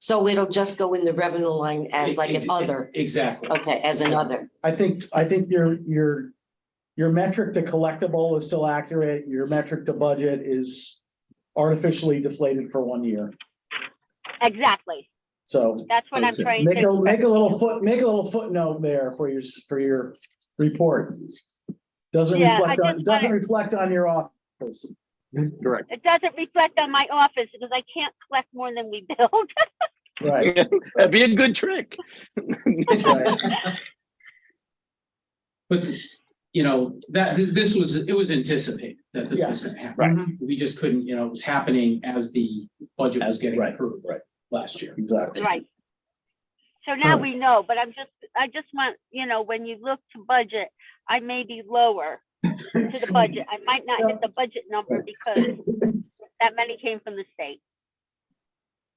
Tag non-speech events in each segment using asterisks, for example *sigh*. So it'll just go in the revenue line E-, as like Ex- an ex- other, Exactly. okay, as another. I think, I think your, your, your metric to collectible is still accurate. Your metric to budget is artificially deflated for one year. Exactly. So That's what I'm Okay. trying make a, to. make a little foot, make a little footnote there for your, s- for your report. Doesn't Yeah, I reflect on, just doesn't reflect on your office. Correct. It doesn't reflect on my office because I can't collect more than we *laughs* build. *laughs* Right. That'd be a good trick. right. But, you know, that, this was, it was anticipated that this was Yes. gonna happen. We just couldn't, you know, it was happening as the budget was As- getting right, approved. right. Last year. Exactly. Right. So now Correct. we know, but I'm just, I just want, you know, when you look to budget, I may be lower to the budget. I might not hit the budget number because that many came from the state.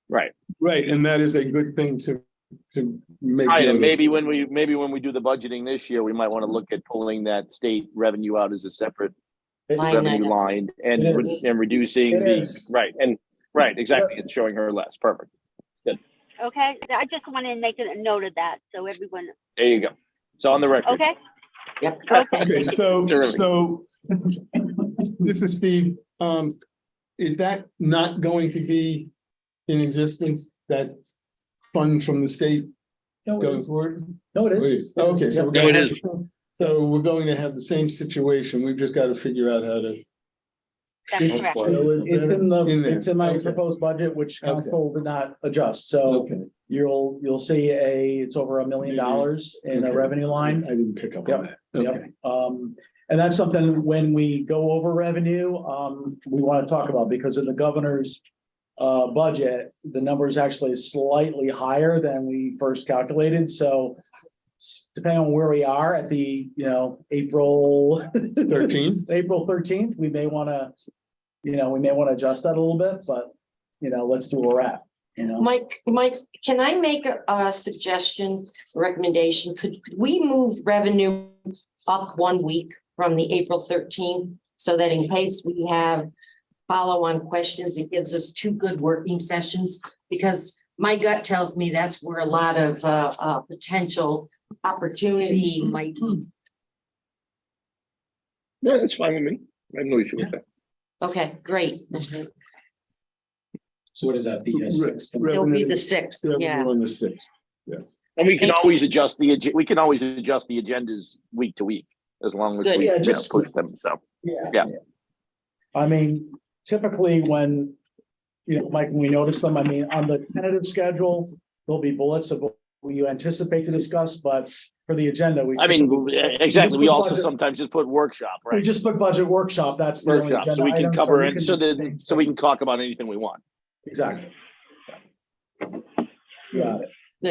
Right. Right, and that is a good thing to, to make. Right, note and of. maybe when we, maybe when we do the budgeting this year, we might want to look at pulling that state revenue out as a separate Line revenue item. line and, It re- is. and reducing It the, is. right, and, right, exactly, and showing her less, perfect. Okay? I just want to make a note of that so everyone, There you go. It's on the record. okay? Yep. Okay. Okay, so, Terrific. so, this is Steve, um, is that not going to be in existence, that fund from the state No, it going is. forward? No, it It is. is. Okay, so. we're No, it gonna have- is. So we're going to have the same situation, we've just got to figure out how to. That's correct. So it- It's in the, In there. it's in my Okay. proposed budget, which Okay. council did not adjust, so you'll, you'll see a, it's over a million Maybe. dollars in a Okay. revenue I line. didn't pick up on that. Okay. Yep, um, and that's something when we go over revenue, um, we want to talk about because in the governor's. Uh, budget, the number is actually slightly higher than we first calculated, so. s- Depending on where we are at the, you know, April, *laughs* Thirteen, April thirteenth, we may want to. You know, we may want to adjust that a little bit, but, you know, let's do where we're at, you know. Mike, Mike, can I make a- a suggestion, recommendation? Could could we move revenue up one week from the April thirteenth? So that in case we have follow-on questions, it gives us two good working sessions. Because my gut tells me that's where a lot of uh, uh, potential opportunity might be. No, that's fine with me. I have no issue with that. Okay, great. So what is that, the uh, Right, sixth? right. It'll be the sixth, yeah. revenue on the sixth. And we can Thank you. always adjust the, ag- we can always adjust the agendas week to week, as long as Good. we Yeah, yeah, just- push them, so. Yeah. Yeah. I mean, typically when, you know, Mike, when we notice them, I mean, on the tentative schedule, there'll be bullets of what you anticipate to discuss, but for the agenda, we. I mean, exactly, Just we put also budget- sometimes just put workshop, We right? just put budget workshop, that's the only Workshop, agenda so we item, can cover we it, can- so then, so we can talk about anything we want. Exactly. Yeah,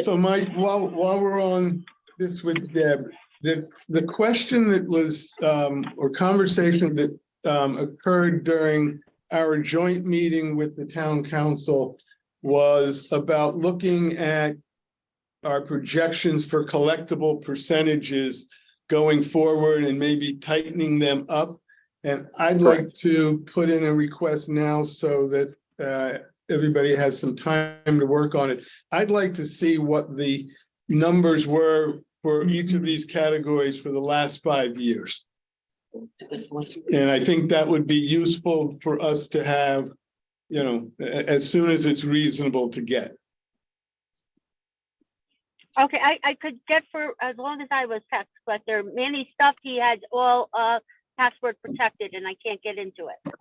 So Mike, while, while we're on this with Deb, the, the question that was, um, or conversation that, um, occurred during our joint meeting with the town council was about looking at our projections for collectible percentages going forward and maybe tightening them up. And I'd like to put in a request now so that, uh, everybody has some time to work on it. I'd like to see what the numbers were for each of these categories for the last five years. It's a good point. And I think that would be useful for us to have, you know, a- as soon as it's reasonable to get. Okay, I, I could get for, as long as I was tax collector, Manny stuff, he has all, uh, password protected and I can't get into it.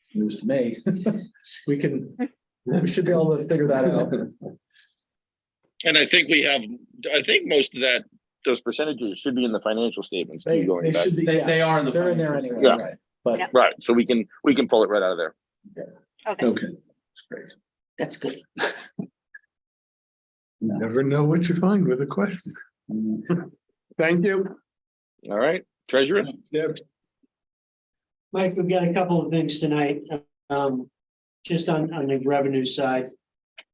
it's news to me. *laughs* We can, we should be able to figure that out. And I think we have, I think most of that. Those percentages should be in the financial statements. too, They, going they back. should be, They, yeah, they are in the. they're in there financial anyway, statement. Yeah. right? But Yep. Right, so we can, we can pull it right out of there. Okay, Okay. That's good. Never know what you find with a question. Mm-hmm. Thank you. All right, treasurer? Deb. Mike, we've got a couple of things tonight, um, just on, on the revenue side.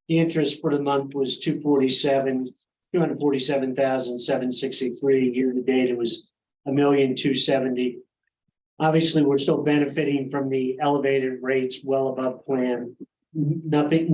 The interest for the month was two forty-seven, two hundred forty-seven thousand, seven sixty-three, year to date, it was a million, two seventy. Obviously, we're still benefiting from the elevated rates well above plan. Nothing,